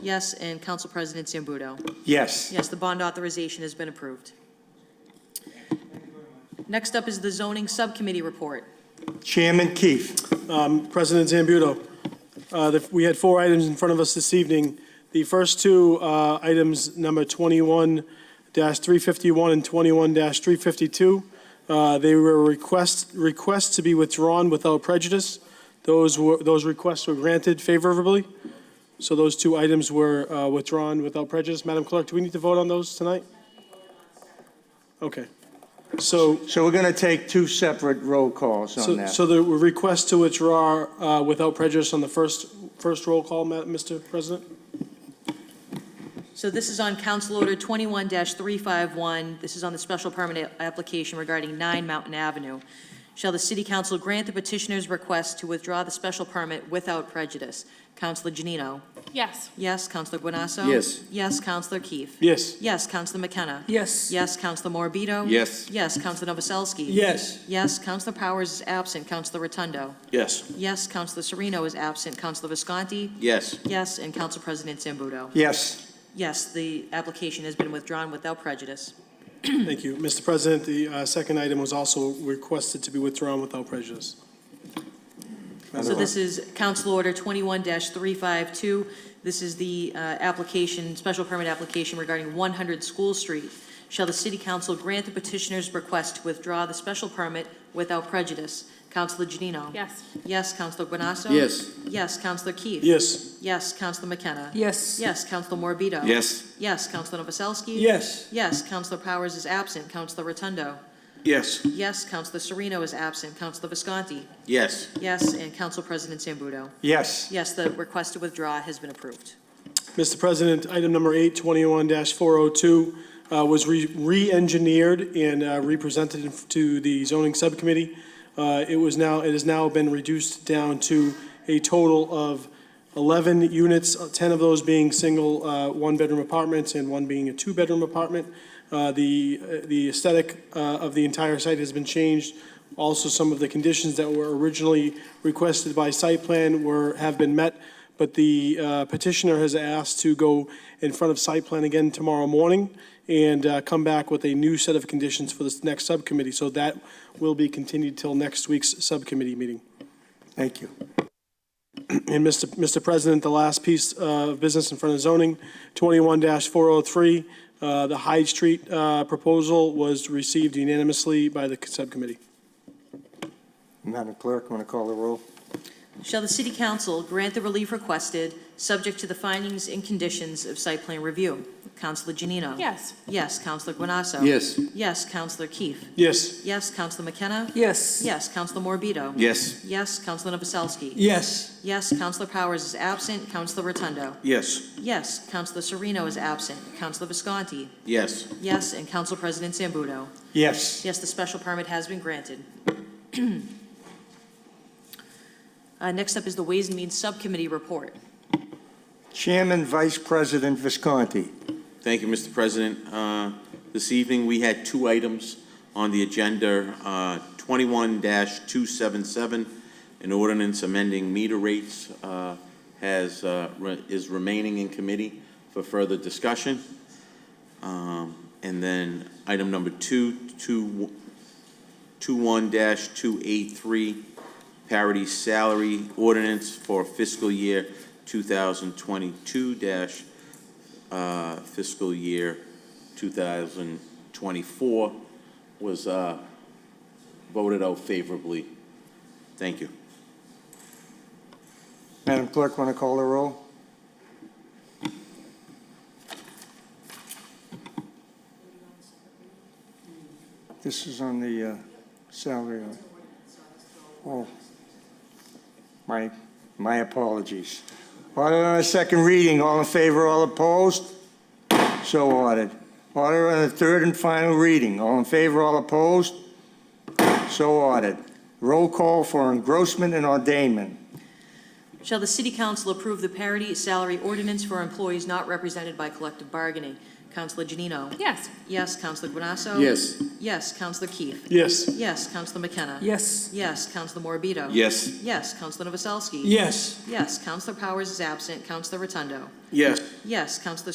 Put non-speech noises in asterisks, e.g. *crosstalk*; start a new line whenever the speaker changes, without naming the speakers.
Yes, and Council President Zambudo.
Yes.
Yes, the bond authorization has been approved. Next up is the zoning subcommittee report.
Chairman Keefe.
Um, President Zambudo, uh, the- we had four items in front of us this evening. The first two uh, items, number 21-351 and 21-352, uh, they were requests, requests to be withdrawn without prejudice. Those were, those requests were granted favorably, so those two items were uh, withdrawn without prejudice. Madam Clerk, do we need to vote on those tonight? Okay. So
So we're going to take two separate roll calls on
so,
that.
so the request to withdraw uh, without prejudice on the first, first roll call, Ma- Mr. President?
So this is on Council Order 21-351. This is on the special permit a- application regarding 9 Mountain Avenue. Shall the City Council grant the petitioner's request to withdraw the special permit without prejudice? Councilor Janino?
Yes.
Yes. Councilor Guanasso?
Yes.
Yes, Councilor Keefe?
Yes.
Yes, Councilor McKenna?
Yes.
Yes, Councilor Morbido?
Yes.
Yes, Councilor Novoselsky?
Yes.
Yes, Councilor Powers is absent. Councilor Rotundo?
Yes.
Yes, Councilor Sereno is absent. Councilor Visconti?
Yes.
Yes, and Council President Zambudo?
Yes.
Yes, the application has been withdrawn without prejudice.
Thank you. Mr. President, the uh, second item was also requested to be withdrawn without prejudice.
So this is Council Order 21-352. This is the uh, application, special permit application regarding 100 School Street. Shall the City Council grant the petitioner's request to withdraw the special permit without prejudice? Councilor Janino?
Yes.
Yes, Councilor Guanasso?
Yes.
Yes, Councilor Keefe?
Yes.
Yes, Councilor McKenna?
Yes.
Yes, Councilor Morbido?
Yes.
Yes, Councilor Novoselsky?
Yes.
Yes, Councilor Powers is absent. Councilor Rotundo?
Yes.
Yes, Councilor Sereno is absent. Councilor Visconti?
Yes.
Yes, and Council President Zambudo?
Yes.
Yes, the request to withdraw has been approved.
Mr. President, item number 821-402 uh, was re- re-engineered and uh, re-presented in- to the zoning subcommittee. Uh, It was now, it has now been reduced down to a total of 11 units, 10 of those being single uh, one-bedroom apartments and one being a two-bedroom apartment. Uh, The uh, the aesthetic uh, of the entire site has been changed. Also, some of the conditions that were originally requested by site plan were, have been met, but the uh, petitioner has asked to go in front of site plan again tomorrow morning and uh, come back with a new set of conditions for this next subcommittee. So that will be continued till next week's subcommittee meeting.
Thank you.
And Mr. Mr. President, the last piece uh, of business in front of zoning, 21-403, uh, the Hyde Street uh, proposal was received unanimously by the subcommittee.
Madam Clerk, want to call the roll?
Shall the City Council grant the relief requested, subject to the findings and conditions of site plan review? Councilor Janino?
Yes.
Yes, Councilor Guanasso?
Yes.
Yes, Councilor Keefe?
Yes.
Yes, Councilor McKenna?
Yes.
Yes, Councilor Morbido?
Yes.
Yes, Councilor Novoselsky?
Yes.
Yes, Councilor Powers is absent. Councilor Rotundo?
Yes.
Yes, Councilor Sereno is absent. Councilor Visconti?
Yes.
Yes, and Council President Zambudo?
Yes.
Yes, the special permit has been granted. *clears throat* Uh, Next up is the Ways and Means Subcommittee report.
Chairman Vice President Visconti.
Thank you, Mr. President. Uh, This evening, we had two items on the agenda, uh, 21-277, an ordinance amending meter rates uh, has, uh, re- is remaining in committee for further discussion. Um, And then item number two, two- 21-283, parity salary ordinance for fiscal year 2022 dash uh, fiscal year 2024 was uh, voted out favorably. Thank you.
Madam Clerk, want to call the roll? This is on the uh, salary. of- Oh, my, my apologies. Order on the second reading, all in favor, all opposed? So ordered. Order on the third and final reading, all in favor, all opposed? So ordered. Roll call for engrossment and ordainment.
Shall the City Council approve the parity salary ordinance for employees not represented by collective bargaining? Counselor Janino?
Yes.
Yes, Counselor Guanasso?
Yes.
Yes, Counselor Keith?
Yes.
Yes, Counselor McKenna?
Yes.
Yes, Counselor Morabito?
Yes.
Yes, Counselor Novoselsky?
Yes.
Yes, Counselor Powers is absent. Counselor Rotundo?
Yes.
Yes, Counselor